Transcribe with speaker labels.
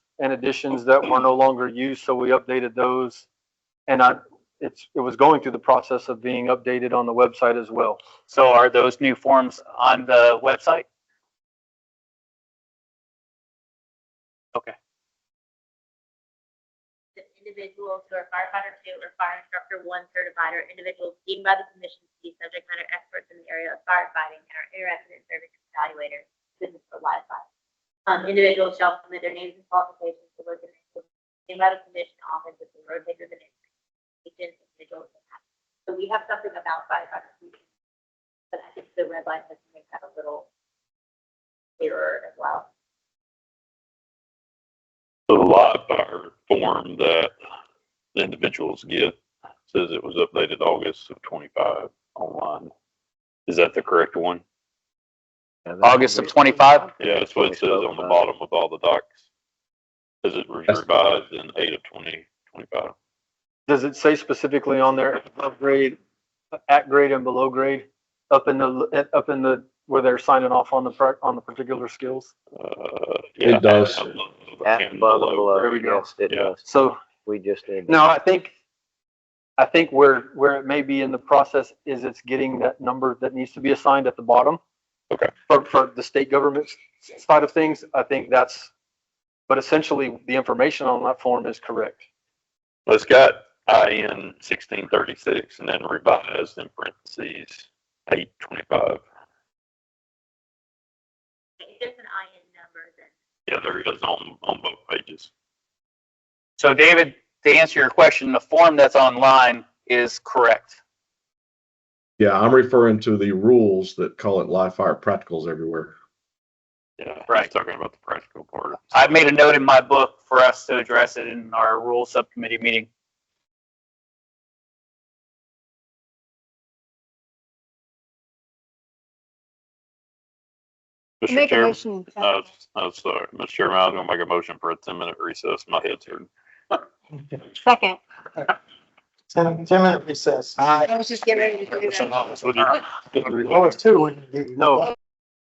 Speaker 1: and additions that were no longer used, so we updated those. And I, it's, it was going through the process of being updated on the website as well.
Speaker 2: So are those new forms on the website?
Speaker 3: the individuals who are firefighter two or fire instructor one certified or individuals deemed by the commission to be subject matter experts in the area of firefighting and are interested in serving as evaluators, business for live fire. Um, individuals shall submit their names and qualifications to work in the deemed by the commission office with the rotator of the name. Agents, individuals, and that. So we have something about firefighters. But I think the red line has to make that a little clearer as well.
Speaker 4: So the live fire form that the individuals get says it was updated August of twenty-five online. Is that the correct one?
Speaker 2: August of 25?
Speaker 4: Yeah, that's what it says on the bottom of all the docs. Says it was revised in eight of twenty twenty-five.
Speaker 1: Does it say specifically on there, above grade, at grade and below grade? Up in the, up in the, where they're signing off on the, par- on the particular skills?
Speaker 4: Uh,
Speaker 5: It
Speaker 4: yeah,
Speaker 5: does.
Speaker 4: above,
Speaker 6: At
Speaker 4: and
Speaker 6: above and
Speaker 4: below.
Speaker 6: below.
Speaker 1: There we go.
Speaker 6: Yes, it
Speaker 4: Yeah.
Speaker 6: does.
Speaker 1: So
Speaker 6: We just need.
Speaker 1: No, I think, I think where, where it may be in the process is it's getting that number that needs to be assigned at the bottom.
Speaker 4: Okay.
Speaker 1: For, for the state government side of things, I think that's, but essentially the information on that form is correct.
Speaker 4: Well, It's got IN sixteen thirty-six and then revised in parentheses eight twenty-five.
Speaker 3: If there's an IN number, then
Speaker 4: Yeah, there it is on, on both pages.
Speaker 2: So David, to answer your question, the form that's online is correct.
Speaker 5: Yeah, I'm referring to the rules that call it live fire practicals everywhere.
Speaker 4: Yeah,
Speaker 2: Right.
Speaker 4: right. Talking about the practical part.
Speaker 2: I've made a note in my book for us to address it in our rule subcommittee meeting.
Speaker 4: Mr.
Speaker 7: Make a
Speaker 4: Chairman,
Speaker 7: motion. uh,
Speaker 4: I was, I was sorry, Mr. Chairman, I was gonna make a motion for a ten minute recess. My head's hurting.
Speaker 7: Second.
Speaker 8: Ten, ten minute recess.
Speaker 7: I was just getting ready to do that.
Speaker 8: Oh, it's two.
Speaker 1: No,